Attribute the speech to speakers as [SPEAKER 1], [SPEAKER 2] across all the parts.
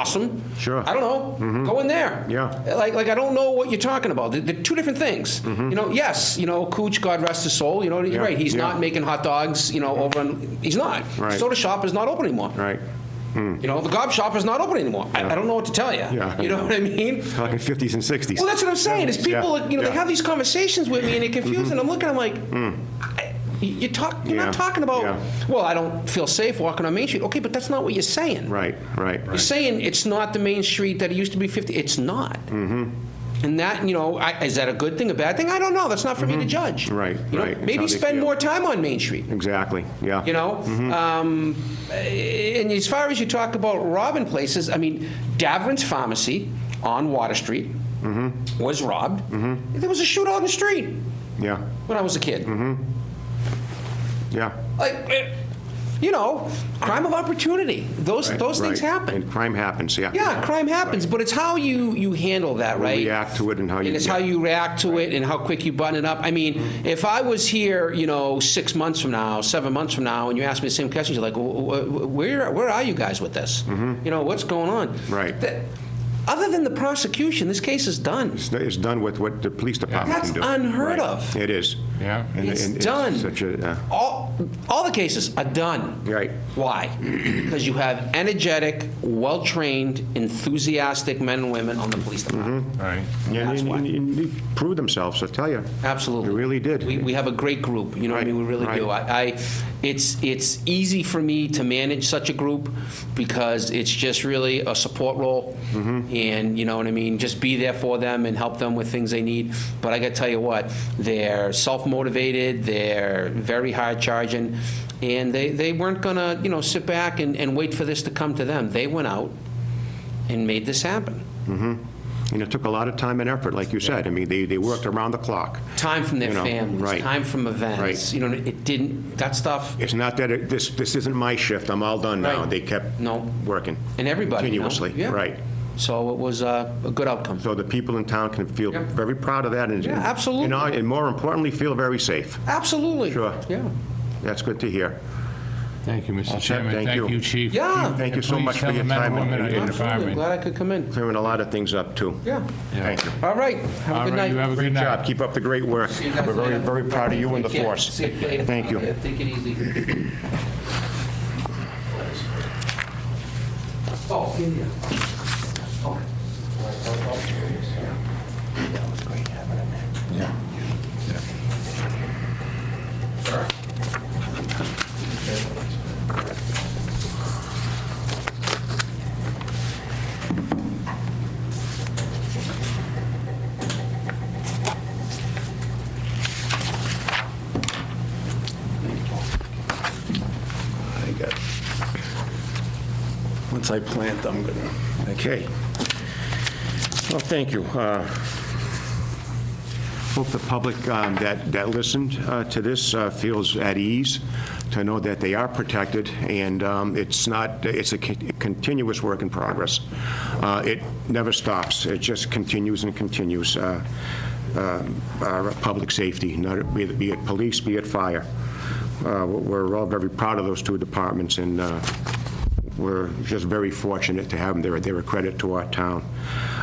[SPEAKER 1] awesome.
[SPEAKER 2] Sure. Mm-hmm.
[SPEAKER 1] I don't know. Go in there.
[SPEAKER 2] Yeah. Mm-hmm.
[SPEAKER 1] Like, like I don't know what you're talking about. They're, they're two different things. You know, yes, you know, Cooch, God rest his soul, you know, he's
[SPEAKER 2] Yeah,
[SPEAKER 1] right. He's
[SPEAKER 2] yeah.
[SPEAKER 1] not making hot dogs, you know, over in, he's not.
[SPEAKER 2] Right.
[SPEAKER 1] Soda shop is not open anymore.
[SPEAKER 2] Right.
[SPEAKER 1] You know, the gob shop is not open anymore. I, I don't know what to tell you.
[SPEAKER 2] Yeah.
[SPEAKER 1] You know what I mean?
[SPEAKER 2] Talking 50s and 60s.
[SPEAKER 1] Well, that's what I'm saying. Is people, you
[SPEAKER 2] Yeah,
[SPEAKER 1] know,
[SPEAKER 2] yeah. Mm-hmm. Mm.
[SPEAKER 1] they have these conversations with me and it confuses. And I'm looking, I'm like, I- you talk, you're
[SPEAKER 2] Yeah,
[SPEAKER 1] not talking about.
[SPEAKER 2] yeah.
[SPEAKER 1] Well, I don't feel safe walking on Main Street. Okay, but that's not what you're saying.
[SPEAKER 2] Right, right.
[SPEAKER 1] You're saying it's not the Main Street that it used to be. Fifty. It's not.
[SPEAKER 2] Mm-hmm.
[SPEAKER 1] And that, you know, I, is that a good thing, a bad thing? I don't know. That's not for me to judge.
[SPEAKER 2] Mm-hmm. Right,
[SPEAKER 1] You know,
[SPEAKER 2] right. It's
[SPEAKER 1] Maybe
[SPEAKER 2] how they
[SPEAKER 1] spend
[SPEAKER 2] feel.
[SPEAKER 1] more time on Main Street
[SPEAKER 2] Exactly, yeah.
[SPEAKER 1] you know?
[SPEAKER 2] Mm-hmm.
[SPEAKER 1] Um, and as far as you talk about robbing places, I mean, Davern's Pharmacy on Water Street
[SPEAKER 2] Mm-hmm.
[SPEAKER 1] was robbed. There was a shootout in the street
[SPEAKER 2] Yeah,
[SPEAKER 1] when I was a kid.
[SPEAKER 2] Mm-hmm. yeah.
[SPEAKER 1] Like, eh, you know, crime of opportunity. Those
[SPEAKER 2] Right,
[SPEAKER 1] those things
[SPEAKER 2] right.
[SPEAKER 1] happen.
[SPEAKER 2] And crime happens, yeah.
[SPEAKER 1] yeah, crime happens, but it's how you you handle that, right?
[SPEAKER 2] React to it and how you.
[SPEAKER 1] And it's how you react to it and how quick you button it up. I mean, if I was here, you know, six months from now, seven months from now, and you asked me the same questions, you're like, "Wh- wh- where, where are you guys with this? You know, what's going on?
[SPEAKER 2] Mm-hmm. Right.
[SPEAKER 1] That- Other than the prosecution, this case is done.
[SPEAKER 2] It's- It's done with what the police department
[SPEAKER 1] That's
[SPEAKER 2] can do.
[SPEAKER 1] unheard of.
[SPEAKER 2] It is.
[SPEAKER 3] Yeah.
[SPEAKER 2] And-
[SPEAKER 1] It's
[SPEAKER 2] and
[SPEAKER 1] done.
[SPEAKER 2] Such a, uh,
[SPEAKER 1] All, all the cases are done.
[SPEAKER 2] Right.
[SPEAKER 1] Why? Because you have energetic, well-trained, enthusiastic men and women on the police department.
[SPEAKER 2] Mm-hmm.
[SPEAKER 3] Right.
[SPEAKER 2] and-
[SPEAKER 1] That's
[SPEAKER 2] and-
[SPEAKER 1] why.
[SPEAKER 2] and- and they proved themselves, I tell you.
[SPEAKER 1] Absolutely.
[SPEAKER 2] They really did.
[SPEAKER 1] We, we have a great group, you know what I mean? We really do.
[SPEAKER 2] Right,
[SPEAKER 1] I, I, it's, it's easy for me to manage such a group because it's just really a support role.
[SPEAKER 2] Mm-hmm.
[SPEAKER 1] And, you know what I mean, just be there for them and help them with things they need. But I gotta tell you what, they're self-motivated, they're very hard charging, and they, they weren't gonna, you know, sit back and, and wait for this to come to them. They went out and made this happen.
[SPEAKER 2] And it took a lot of time and effort, like you said. I mean, they, they worked around the clock.
[SPEAKER 1] Time from their
[SPEAKER 2] You know,
[SPEAKER 1] families,
[SPEAKER 2] right.
[SPEAKER 1] time from events,
[SPEAKER 2] Right.
[SPEAKER 1] you know, it didn't, that stuff,
[SPEAKER 2] It's not that, it- this, this isn't my shift, I'm all done now.
[SPEAKER 1] Right.
[SPEAKER 2] They kept
[SPEAKER 1] No.
[SPEAKER 2] working.
[SPEAKER 1] And everybody, you know?
[SPEAKER 2] Continuously,
[SPEAKER 1] Yeah.
[SPEAKER 2] right.
[SPEAKER 1] So it was uh, a good outcome.
[SPEAKER 2] So the people in town can feel
[SPEAKER 1] Yep.
[SPEAKER 2] very proud of that and.
[SPEAKER 1] Yeah, absolutely.
[SPEAKER 2] You know, and more importantly, feel very safe.
[SPEAKER 1] Absolutely.
[SPEAKER 2] Sure.
[SPEAKER 1] Yeah.
[SPEAKER 2] That's good to hear.
[SPEAKER 3] Thank you, Mr. Chairman.
[SPEAKER 2] Thank you.
[SPEAKER 3] Thank you, Chief.
[SPEAKER 1] Yeah.
[SPEAKER 2] Thank you so
[SPEAKER 3] Please
[SPEAKER 2] much for
[SPEAKER 3] tell
[SPEAKER 2] your
[SPEAKER 3] the men and
[SPEAKER 2] time and-
[SPEAKER 3] women
[SPEAKER 2] and-
[SPEAKER 3] in the
[SPEAKER 2] and
[SPEAKER 1] Absolutely.
[SPEAKER 3] department.
[SPEAKER 1] Glad I could come in.
[SPEAKER 2] clearing a lot of things up, too.
[SPEAKER 1] Yeah.
[SPEAKER 2] Thank you.
[SPEAKER 1] All right. Have a
[SPEAKER 3] All
[SPEAKER 1] good
[SPEAKER 3] right,
[SPEAKER 1] night.
[SPEAKER 3] you have a
[SPEAKER 2] Great
[SPEAKER 3] good
[SPEAKER 2] job,
[SPEAKER 3] night.
[SPEAKER 2] keep up the great work.
[SPEAKER 1] See you guys
[SPEAKER 2] We're very,
[SPEAKER 1] later.
[SPEAKER 2] very proud of you and the
[SPEAKER 1] Take care.
[SPEAKER 2] force.
[SPEAKER 1] See you later.
[SPEAKER 2] Thank you.
[SPEAKER 1] Yeah, Take it easy. Oh, yeah, yeah. Oh. That was great having him there.
[SPEAKER 4] I got, once I plant, I'm gonna,
[SPEAKER 2] Okay. Well, thank you. Uh, Hope the public um, that that listened uh, to this uh, feels at ease to know that they are protected, and um, it's not, it's a con- continuous work in progress. Uh, It never stops. It just continues and continues, uh, uh, our public safety, not- be it- be it police, be it fire. Uh, We're all very proud of those two departments, and uh, we're just very fortunate to have them. They're, they're a credit to our town.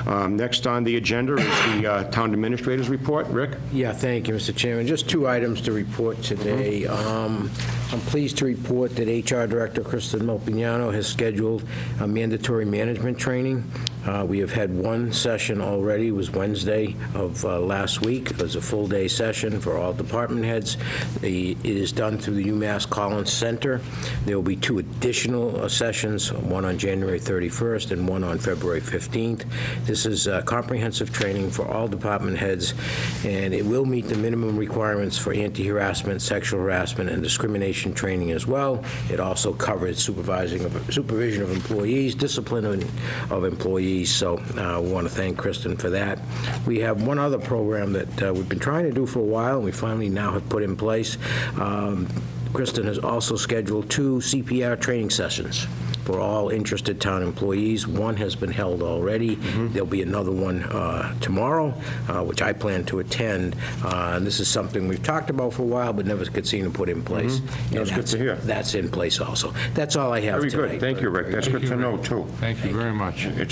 [SPEAKER 2] Um, Next on the agenda is the uh, Town Administrator's Report. Rick?
[SPEAKER 5] Yeah, thank you, Mr. Chairman. Just two items to report today. Um, I'm pleased to report that HR Director Kristen Melpignano has scheduled a mandatory management training. Uh, We have had one session already, it was Wednesday of uh, last week. It was a full-day session for all department heads. The- It is done through the UMass Collins Center. There will be two additional uh, sessions, one on January 31st and one on February 15th. This is uh, comprehensive training for all department heads, and it will meet the minimum requirements for anti-harassment, sexual harassment, and discrimination training as well. It also covers supervising, of- supervision of employees, discipline of- of employees, so uh, we want to thank Kristen for that. We have one other program that uh, we've been trying to do for a while, and we finally now have put in place. Um, Kristen has also scheduled two CPR training sessions for all interested town employees. One has been held already.
[SPEAKER 2] Mm-hmm.
[SPEAKER 5] There'll be another one uh, tomorrow, uh, which I plan to attend. Uh, And this is something we've talked about for a while, but never could seem to put in place.
[SPEAKER 2] That's
[SPEAKER 5] And
[SPEAKER 2] Mm-hmm. good to hear.
[SPEAKER 5] That's in place also. That's all I have
[SPEAKER 2] Very
[SPEAKER 5] tonight.
[SPEAKER 2] good. Thank you, Rick. That's good to know, too.
[SPEAKER 3] Thank you very much.
[SPEAKER 2] It's